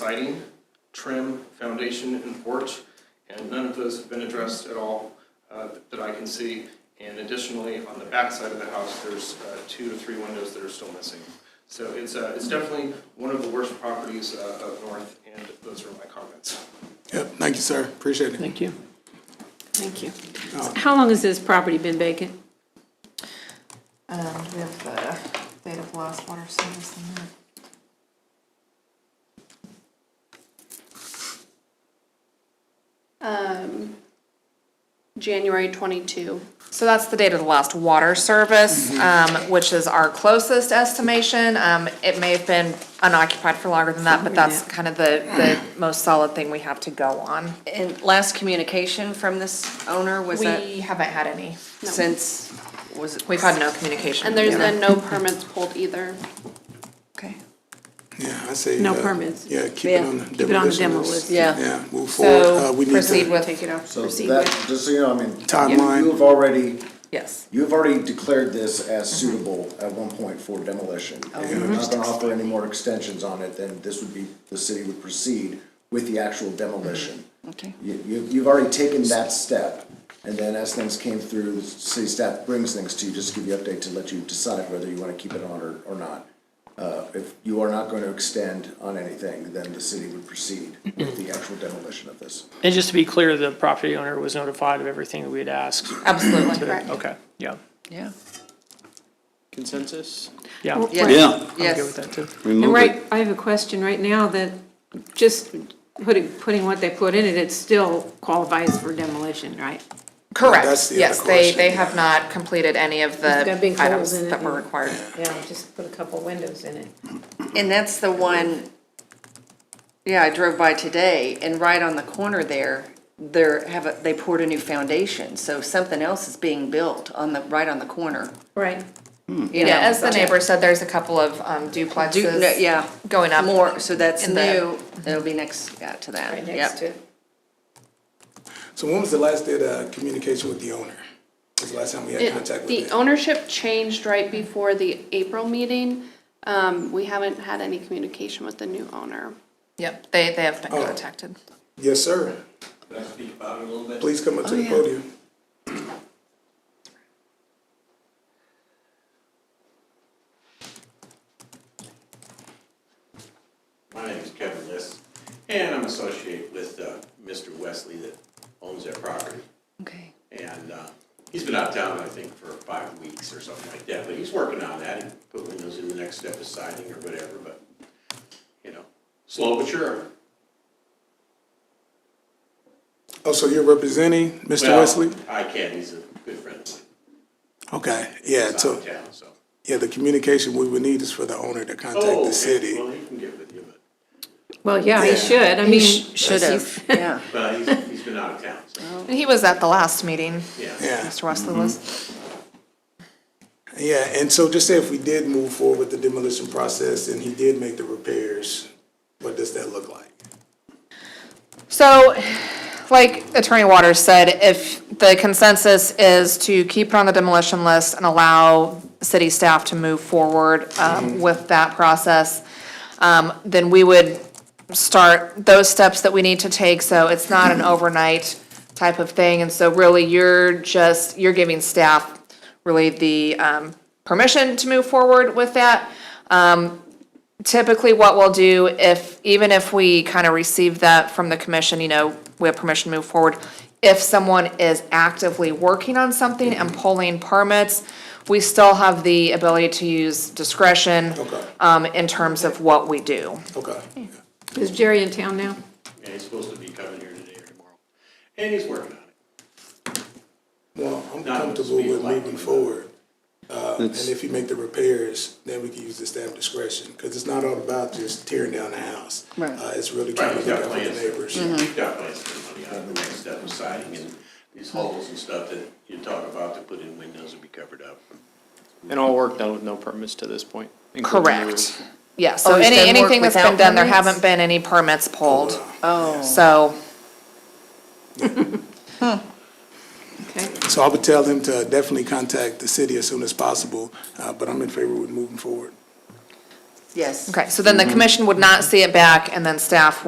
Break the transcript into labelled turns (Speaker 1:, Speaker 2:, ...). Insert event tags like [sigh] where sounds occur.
Speaker 1: siding, trim, foundation, and porch, and none of those have been addressed at all uh, that I can see. And additionally, on the back side of the house, there's uh, two to three windows that are still missing. So it's, uh, it's definitely one of the worst properties uh, up north, and those are my comments.
Speaker 2: Yep, thank you, sir. Appreciate it.
Speaker 3: Thank you.
Speaker 4: Thank you. How long has this property been vacant?
Speaker 5: Um, we have the date of last water service in there.
Speaker 6: January 22.
Speaker 5: So that's the date of the last water service, um,
Speaker 2: Mm-hmm.
Speaker 5: which is our closest estimation. Um, it may have been unoccupied for longer than that, but that's kind of the, the most solid thing we have to go on.
Speaker 7: And last communication from this owner was that
Speaker 5: We haven't had any.
Speaker 7: since, was it?
Speaker 5: We've had no communication.
Speaker 6: And there's
Speaker 5: Yeah.
Speaker 6: been no permits pulled either.
Speaker 7: Okay.
Speaker 2: Yeah, I say.
Speaker 4: No
Speaker 2: uh,
Speaker 4: permits.
Speaker 2: Yeah, keep it
Speaker 7: Yeah.
Speaker 2: on the
Speaker 4: Keep it on the
Speaker 2: demolition
Speaker 4: demo
Speaker 2: list.
Speaker 4: list.
Speaker 7: Yeah.
Speaker 2: Yeah, move forward. Uh,
Speaker 5: So
Speaker 2: we need
Speaker 5: proceed
Speaker 2: to-
Speaker 5: with.
Speaker 4: Take it off,
Speaker 8: So
Speaker 4: proceed
Speaker 8: that,
Speaker 4: with.
Speaker 8: just so you know, I mean.
Speaker 2: Timeline.
Speaker 8: You have already,
Speaker 5: Yes.
Speaker 8: you have already declared this as
Speaker 4: Mm-hmm.
Speaker 8: suitable at one point for demolition.
Speaker 4: Oh,
Speaker 8: If you're not gonna offer any more extensions on it, then this would be, the city would proceed with the actual demolition.
Speaker 4: Mm-hmm.
Speaker 7: Okay.
Speaker 8: You, you, you've already taken that step, and then as things came through, the city staff brings things to you, just to give you update to let you decide whether you wanna keep it on or, or not. Uh, if you are not gonna extend on anything, then the city would proceed with the actual demolition of this.
Speaker 3: And just to be clear, the property owner was notified of everything that we had asked.
Speaker 5: Absolutely.
Speaker 3: Okay, yeah.
Speaker 7: Yeah.
Speaker 3: Consensus? Yeah, I'm
Speaker 7: Yes.
Speaker 9: Yeah,
Speaker 3: good with
Speaker 7: Yes.
Speaker 3: that too.
Speaker 4: And
Speaker 9: remove
Speaker 4: right,
Speaker 9: it.
Speaker 4: I have a question right now that just putting, putting what they put in it, it still qualifies for demolition, right?
Speaker 2: That's
Speaker 5: Correct.
Speaker 2: the other
Speaker 5: Yes, they, they
Speaker 2: question.
Speaker 5: have not completed any of
Speaker 4: It's
Speaker 5: the
Speaker 4: got big holes
Speaker 5: items
Speaker 4: in it
Speaker 5: that were
Speaker 4: and-
Speaker 5: required.
Speaker 4: Yeah, just put a couple windows in it.
Speaker 7: And that's the one, yeah, I drove by today and right on the corner there, there have, a- they poured a new foundation. So something else is being built on the, right on the corner.
Speaker 4: Right.
Speaker 7: you
Speaker 5: Yeah,
Speaker 7: know,
Speaker 5: as the
Speaker 7: but-
Speaker 5: neighbor said, there's a couple of um,
Speaker 7: Do- no,
Speaker 5: duplexes.
Speaker 7: Yeah.
Speaker 5: Going up.
Speaker 7: More, so that's
Speaker 5: in
Speaker 7: the, it'll be next, yeah, to that.
Speaker 4: Right
Speaker 7: Yep.
Speaker 4: next to it.
Speaker 2: So when was the last day of communication with the owner? Was the last time we had contact
Speaker 6: It- The
Speaker 2: with them?
Speaker 6: ownership changed right before the April meeting. Um, We haven't had any communication with the new owner.
Speaker 5: Yep, they, they have been
Speaker 7: Oh.
Speaker 5: contacted.
Speaker 2: Yes, sir. Please come
Speaker 4: Oh,
Speaker 2: up to the podium.
Speaker 10: My name is Kevin List, and I'm associated with uh, Mr. Wesley that owns that property.
Speaker 7: Okay.
Speaker 10: And uh, he's been out of town, I think, for five weeks or something like that, but he's working on that. He put windows in the next step of siding or whatever, but, you know, slow but sure.
Speaker 2: Oh, so you're representing Mr.
Speaker 10: Well,
Speaker 2: Wesley?
Speaker 10: I can, he's a good friend of mine.
Speaker 2: Okay, yeah,
Speaker 10: He's out
Speaker 2: so,
Speaker 10: of town, so.
Speaker 2: yeah, the communication we would need is for the owner to
Speaker 10: Oh,
Speaker 2: contact
Speaker 10: okay.
Speaker 2: the city.
Speaker 10: Well, he can get with you, but,
Speaker 4: Well, yeah, they should, I mean.
Speaker 7: Should have, yeah.
Speaker 10: but he's, he's been out of town, so,
Speaker 5: He was at the last meeting,
Speaker 10: yeah.
Speaker 2: Yeah,
Speaker 5: Mr. Wesley
Speaker 7: Mm-hmm.
Speaker 5: was.
Speaker 2: yeah, and so just say if we did move forward with the demolition process and he did make the repairs, what does that look like?
Speaker 5: So, like Attorney Waters said, if the consensus is to keep it on the demolition list and allow city staff to move forward
Speaker 7: Mm-hmm.
Speaker 5: um, with that process, um, then we would start those steps that we need to take, so it's not an overnight type of thing. And so really, you're just, you're giving staff really the um, permission to move forward with that Um, typically what we'll do if, even if we kind of receive that from the commission, you know, we have permission to move forward. If someone is actively working on something and pulling permits, we still have the ability to use discretion
Speaker 2: Okay.
Speaker 5: um, in terms of what we do.
Speaker 2: Okay,
Speaker 4: Is Jerry in town now?
Speaker 10: [laughs] And he's supposed to be coming here today or tomorrow, and he's working on it.
Speaker 2: well, I'm
Speaker 10: Not up to
Speaker 2: comfortable
Speaker 10: speed
Speaker 2: with
Speaker 10: like-
Speaker 2: moving forward. uh, And
Speaker 9: It's,
Speaker 2: if you make the repairs, then we can use the staff discretion, because it's not all about just tearing down the house.
Speaker 7: Right.
Speaker 2: Uh, it's really
Speaker 10: Right, Mm-hmm.
Speaker 2: trying to look out
Speaker 10: we've got
Speaker 2: for the
Speaker 10: plans,
Speaker 2: neighbors.
Speaker 10: we've got plans for money out of the next step of siding and these holes and stuff that you talk about to put in windows and be covered up.
Speaker 11: And all work done with no permits to this point? including yours?
Speaker 5: Correct. Yeah, so
Speaker 7: Oh, he's
Speaker 5: any,
Speaker 7: done work
Speaker 5: anything that's been
Speaker 7: without
Speaker 5: done, there
Speaker 7: permits?
Speaker 5: haven't been any permits pulled.
Speaker 7: Oh.
Speaker 5: So,
Speaker 4: Okay.
Speaker 2: So I would tell them to definitely contact the city as soon as possible, uh, but I'm in favor with moving forward.
Speaker 7: Yes. Mm-hmm.
Speaker 5: Okay, so then the commission would not see it back, and then staff